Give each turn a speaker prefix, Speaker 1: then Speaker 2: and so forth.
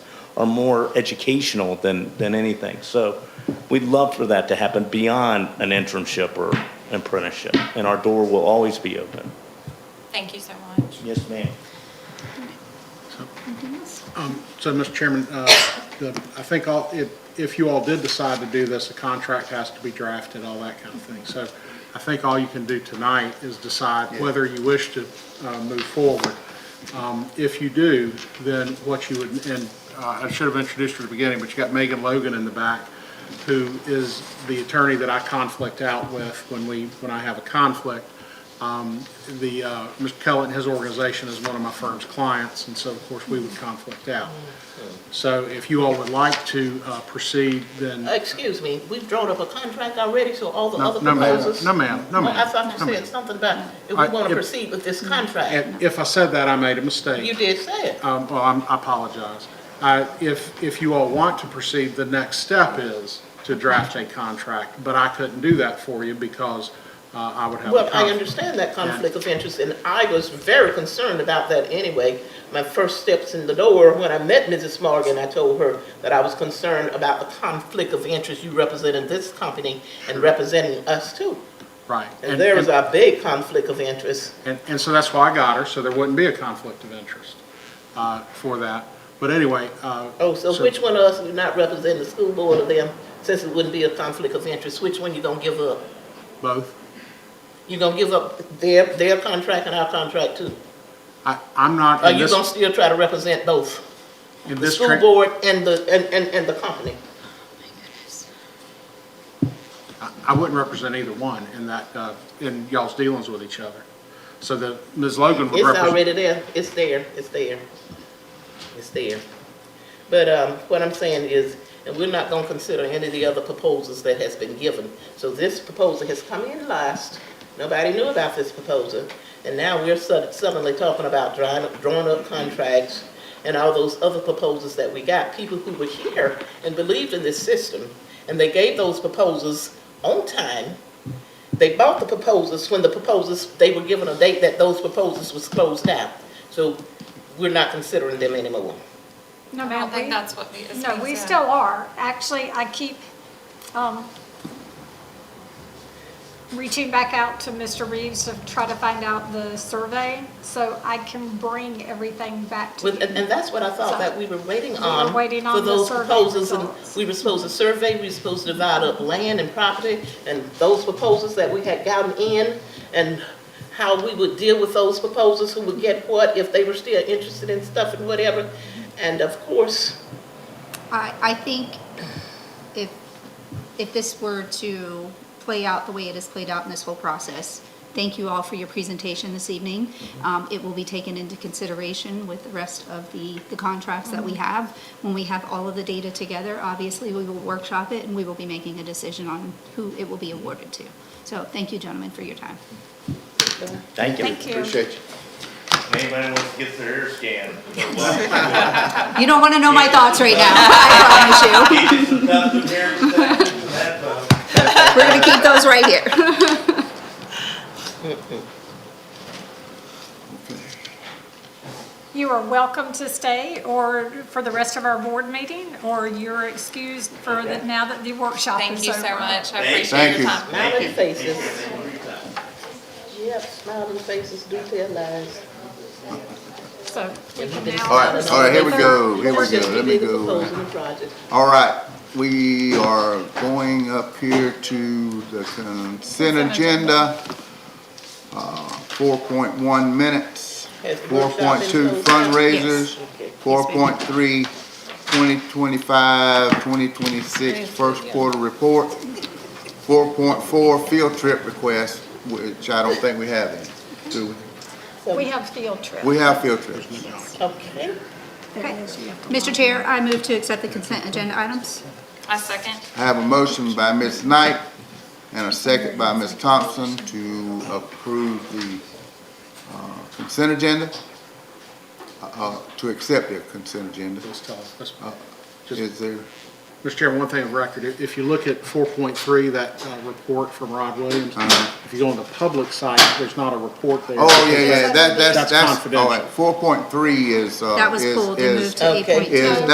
Speaker 1: are more educational than, than anything. So we'd love for that to happen beyond an internship or apprenticeship, and our door will always be open.
Speaker 2: Thank you so much.
Speaker 1: Yes, ma'am.
Speaker 3: Um, So, Mr. Chairman, uh, the- I think all- if if you all did decide to do this, a contract has to be drafted, all that kind of thing. So I think all you can do tonight is decide whether you wish to uh, move forward. Um, If you do, then what you would, and uh, I should have introduced you at the beginning, but you got Megan Logan in the back, who is the attorney that I conflict out with when we, when I have a conflict the, uh, Mr. Cullen and his organization is one of my firm's clients, and so of course we would conflict out. So if you all would like to uh, proceed, then, no
Speaker 4: Excuse me, we've drawn up a contract already, so all the other
Speaker 3: no, ma'am,
Speaker 4: proposals.
Speaker 3: no ma'am, no
Speaker 4: Oh, I
Speaker 3: ma'am.
Speaker 4: thought
Speaker 3: no,
Speaker 4: you
Speaker 3: ma'am.
Speaker 4: said something about if we
Speaker 3: I-
Speaker 4: want
Speaker 3: if-
Speaker 4: to proceed with this contract.
Speaker 3: And if I said that, I made a mistake.
Speaker 4: You did say it.
Speaker 3: Um, Well, I'm- I apologize. Uh, If, if you all want to proceed, the next step is to draft a contract, but I couldn't do that for you because uh, I would have a
Speaker 4: Well, I
Speaker 3: conflict.
Speaker 4: understand that conflict of interest, and I was very concerned about that anyway. My first steps in the door, when I met Mrs. Morgan, I told her that I was concerned about the conflict of interest you representing this company and representing us too.
Speaker 3: Right.
Speaker 4: And there is a big conflict of interest.
Speaker 3: And, and so that's why I got her, so there wouldn't be a conflict of interest uh, for that. But anyway, uh,
Speaker 4: Oh, so
Speaker 3: So-
Speaker 4: which one of us do not represent the school board of them, since it wouldn't be a conflict of interest, which one you gonna give up?
Speaker 3: both,
Speaker 4: You gonna give up their, their contract and our contract too?
Speaker 3: I, I'm not
Speaker 4: Are
Speaker 3: in
Speaker 4: Uh, you gonna
Speaker 3: this,
Speaker 4: still try to represent both,
Speaker 3: in
Speaker 4: the
Speaker 3: this,
Speaker 4: school
Speaker 3: tran-
Speaker 4: board and the, and, and, and the company?
Speaker 3: I wouldn't represent either one in that, uh, in y'all's dealings with each other. So the, Ms. Logan would
Speaker 4: It's
Speaker 3: represent.
Speaker 4: already there, it's there, it's there, it's there. But, um, what I'm saying is, and we're not gonna consider any of the other proposals that has been given. So this proposal has come in last, nobody knew about this proposal, and now we're sud- suddenly talking about drawing, up- drawing up contracts and all those other proposals that we got, people who were here and believed in this system, and they gave those proposals on time, they bought the proposals when the proposals, they were given a date that those proposals was closed down. So we're not considering them anymore.
Speaker 5: No,
Speaker 2: I
Speaker 5: ma'am,
Speaker 2: don't
Speaker 5: we,
Speaker 2: think that's what the, is
Speaker 5: no,
Speaker 2: being
Speaker 5: we
Speaker 2: said.
Speaker 5: still are. Actually, I keep, um, reaching back out to Mr. Reeves to try to find out the survey, so I can bring everything back to
Speaker 4: With-
Speaker 5: you.
Speaker 4: And, and that's what I thought that we were waiting
Speaker 5: were
Speaker 4: on.
Speaker 5: waiting on
Speaker 4: for
Speaker 5: the
Speaker 4: those
Speaker 5: survey
Speaker 4: proposals, and
Speaker 5: results.
Speaker 4: We were supposed to survey, we were supposed to divide up land and property, and those proposals that we had gotten in, and how we would deal with those proposals, who would get what, if they were still interested in stuff and whatever. And of course,
Speaker 6: I, I think if, if this were to play out the way it has played out in this whole process, thank you all for your presentation this evening. Um, it will be taken into consideration with the rest of the, the contracts that we have. When we have all of the data together, obviously, we will workshop it and we will be making a decision on who it will be awarded to. So thank you, gentlemen, for your time.
Speaker 1: Thank you.
Speaker 5: Thank you.
Speaker 7: Appreciate you.
Speaker 1: Anybody wants to get their hair scanned?
Speaker 6: You don't want to know my thoughts right now, I promise you. We're going to keep those right here.
Speaker 5: You are welcome to stay or for the rest of our board meeting, or you're excused for the, now that the workshop
Speaker 2: Thank
Speaker 5: is
Speaker 2: you
Speaker 5: over.
Speaker 2: so much. I
Speaker 7: Thank
Speaker 2: appreciate your
Speaker 7: you.
Speaker 2: time.
Speaker 4: smiling faces. Yep, smiling faces do tell lies.
Speaker 5: So we can now.
Speaker 7: All right, all right, here we go, here we go, let me go.
Speaker 4: Proposing the project.
Speaker 7: All right, we are going up here to the consent agenda. Uh, Four point one minutes,
Speaker 4: Has the
Speaker 7: four
Speaker 4: workshop been
Speaker 7: point two
Speaker 4: closed down?
Speaker 7: fundraisers,
Speaker 4: Yes. Okay.
Speaker 7: four point three, twenty twenty-five, twenty twenty-six, first quarter report, four point four field trip request, which I don't think we have any, do we?
Speaker 4: So-
Speaker 5: We have field trip.
Speaker 7: We have field trips.
Speaker 4: Okay,
Speaker 6: Okay. Mr. Chair, I move to accept the consent agenda items.
Speaker 2: I second.
Speaker 7: I have a motion by Ms. Knight and a second by Ms. Thompson to approve the uh, consent agenda, uh, to accept the consent agenda.
Speaker 3: Just tell us, Ms. Just-
Speaker 7: Is there,
Speaker 3: Mr. Chairman, one thing of record, if- if you look at four point three, that uh, report from Rod Williams, if you go on the public site, there's not a report there.
Speaker 7: Uh-huh. oh, yeah, yeah, that, that's, oh,
Speaker 3: That's
Speaker 7: that's, all
Speaker 3: confidential.
Speaker 7: right, four point three is, uh,
Speaker 6: That was
Speaker 7: is,
Speaker 6: pulled and
Speaker 7: is,
Speaker 6: moved to eight
Speaker 4: Okay.
Speaker 6: point two.
Speaker 7: is,